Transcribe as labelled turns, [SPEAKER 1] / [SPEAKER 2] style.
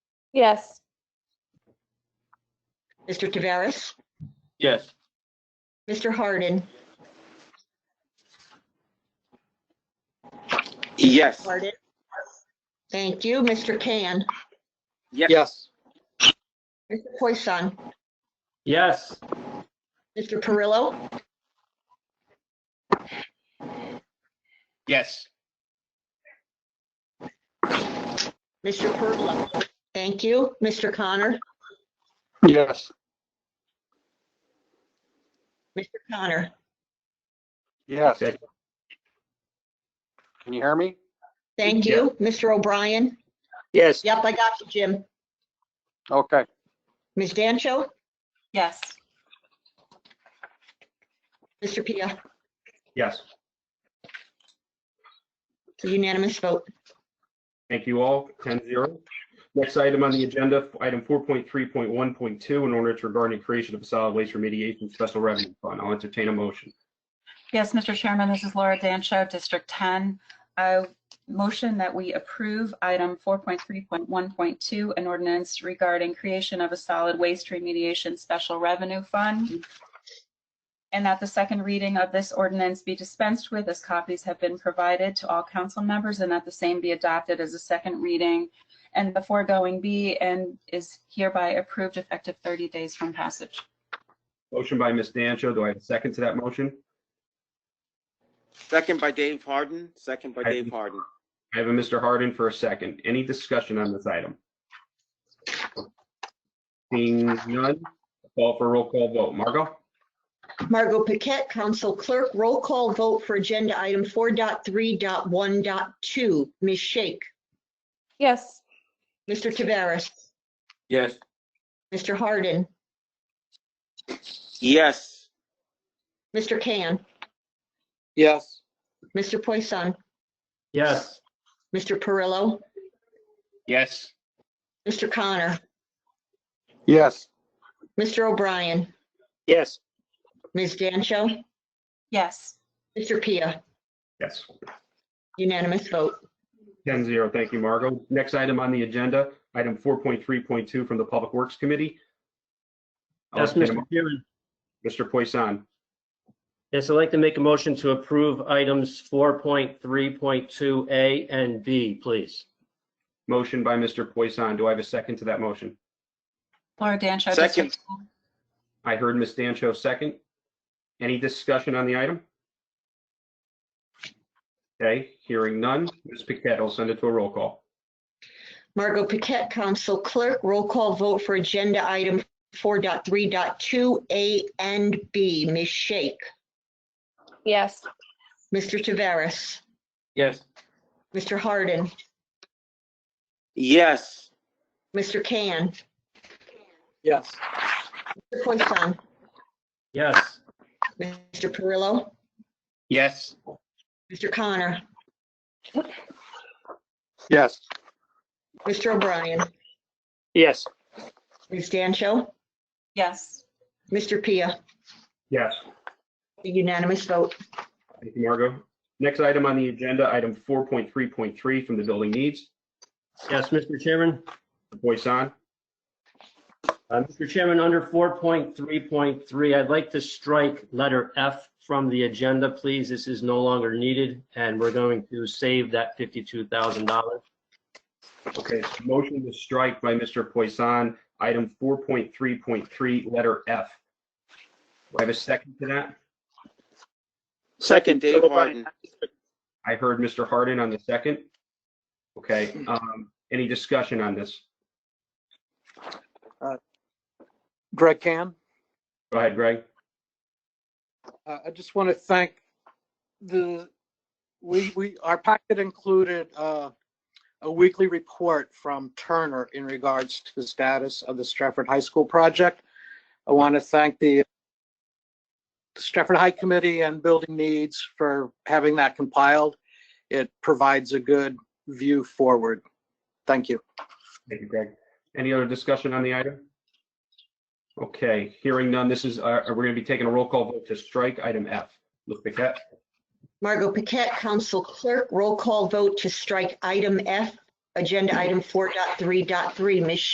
[SPEAKER 1] Yes.
[SPEAKER 2] Mr. Taveras,
[SPEAKER 3] Yes.
[SPEAKER 2] Mr. Hardin,
[SPEAKER 3] Yes.
[SPEAKER 2] Hardin. Thank you, Mr. Can,
[SPEAKER 3] Yes.
[SPEAKER 2] Mr. Poisson,
[SPEAKER 3] Yes.
[SPEAKER 2] Mr. Perillo,
[SPEAKER 3] Yes.
[SPEAKER 2] Mr. Perillo. Thank you, Mr. Connor,
[SPEAKER 3] Yes.
[SPEAKER 2] Mr. Connor.
[SPEAKER 4] Yes.
[SPEAKER 3] Okay.
[SPEAKER 4] Can you hear me?
[SPEAKER 2] Thank you, Mr. O'Brien.
[SPEAKER 3] Yes.
[SPEAKER 2] Yep, I got you, Jim.
[SPEAKER 4] Okay.
[SPEAKER 2] Ms. Dancho,
[SPEAKER 1] Yes.
[SPEAKER 2] Mr. Pia,
[SPEAKER 3] Yes.
[SPEAKER 2] unanimous vote.
[SPEAKER 5] Thank you all, 10-0. Next item on the agenda, item four point three point one point two, an ordinance regarding creation of a solid waste remediation special revenue fund. I'll entertain a motion.
[SPEAKER 6] Yes, Mr. Chairman, this is Laura Dancho, District 10. I motion that we approve item 4.3.1.2, an ordinance regarding creation of a solid waste remediation special revenue fund. And that the second reading of this ordinance be dispensed with as copies have been provided to all council members and that the same be adopted as a second reading. And the foregoing be and is hereby approved effective 30 days from passage.
[SPEAKER 5] Motion by Ms. Dancho. Do I have a second to that motion?
[SPEAKER 3] Second by Dave Harden, second by
[SPEAKER 5] I-
[SPEAKER 3] Dave Harden.
[SPEAKER 5] I have a Mr. Hardin for a second. Any discussion on this item? Seeing none, call for a roll call vote. Margot?
[SPEAKER 2] Margot Paquette, Council Clerk, roll call vote for agenda item 4.3.1.2. Ms. Shake,
[SPEAKER 1] Yes.
[SPEAKER 2] Mr. Taveras,
[SPEAKER 3] Yes.
[SPEAKER 2] Mr. Hardin,
[SPEAKER 3] Yes.
[SPEAKER 2] Mr. Can,
[SPEAKER 4] Yes.
[SPEAKER 2] Mr. Poisson,
[SPEAKER 5] Yes.
[SPEAKER 2] Mr. Perillo,
[SPEAKER 3] Yes.
[SPEAKER 2] Mr. Connor,
[SPEAKER 4] Yes.
[SPEAKER 2] Mr. O'Brien,
[SPEAKER 3] Yes.
[SPEAKER 2] Ms. Dancho,
[SPEAKER 6] Yes.
[SPEAKER 2] Mr. Pia,
[SPEAKER 5] Yes.
[SPEAKER 2] unanimous vote.
[SPEAKER 5] 10-0. Thank you, Margot. Next item on the agenda, item four point three point two from the Public Works Committee. I'll
[SPEAKER 7] Yes,
[SPEAKER 5] entertain a
[SPEAKER 7] Mr.
[SPEAKER 5] mo-
[SPEAKER 7] Chairman.
[SPEAKER 5] Mr. Poisson.
[SPEAKER 7] Yes, I'd like to make a motion to approve items 4.3.2A and B, please.
[SPEAKER 5] Motion by Mr. Poisson. Do I have a second to that motion?
[SPEAKER 6] Laura Dancho,
[SPEAKER 3] Second.
[SPEAKER 6] District 10.
[SPEAKER 5] I heard Ms. Dancho second. Any discussion on the item? Okay, hearing none. Ms. Paquette, I'll send it to a roll call.
[SPEAKER 2] Margot Paquette, Council Clerk, roll call vote for agenda item 4.3.2, A and B. Ms. Shake,
[SPEAKER 1] Yes.
[SPEAKER 2] Mr. Taveras,
[SPEAKER 3] Yes.
[SPEAKER 2] Mr. Hardin,
[SPEAKER 3] Yes.
[SPEAKER 2] Mr. Can,
[SPEAKER 4] Yes.
[SPEAKER 2] Mr. Poisson,
[SPEAKER 7] Yes.
[SPEAKER 2] Mr. Perillo,
[SPEAKER 3] Yes.
[SPEAKER 2] Mr. Connor,
[SPEAKER 4] Yes.
[SPEAKER 2] Mr. O'Brien,
[SPEAKER 7] Yes.
[SPEAKER 2] Ms. Dancho,
[SPEAKER 6] Yes.
[SPEAKER 2] Mr. Pia,
[SPEAKER 5] Yes.
[SPEAKER 2] unanimous vote.
[SPEAKER 5] Thank you, Margot. Next item on the agenda, item 4.3.3 from the Building Needs.
[SPEAKER 7] Yes, Mr. Chairman.
[SPEAKER 5] Poisson,
[SPEAKER 7] Uh, Mr. Chairman, under 4.3.3, I'd like to strike letter F from the agenda, please. This is no longer needed, and we're going to save that $52,000.
[SPEAKER 5] okay, so motion to strike by Mr. Poisson, item 4.3.3, letter F. Do I have a second to that?
[SPEAKER 3] Second, Dave Harden.
[SPEAKER 5] I heard Mr. Hardin on the second. Okay, um, any discussion on this?
[SPEAKER 4] Greg Can,
[SPEAKER 5] Go ahead, Greg.
[SPEAKER 4] uh, I just want to thank the, we, we, our packet included uh, a weekly report from Turner in regards to the status of the Stratford High School project. I want to thank the Stratford High Committee and Building Needs for having that compiled. It provides a good view forward. Thank you.
[SPEAKER 5] Thank you, Greg. Any other discussion on the item? Okay, hearing none, this is, uh, we're gonna be taking a roll call vote to strike item F. Look, Paquette,
[SPEAKER 2] Margot Paquette, Council Clerk, roll call vote to strike item F, agenda item 4.3.3. Ms.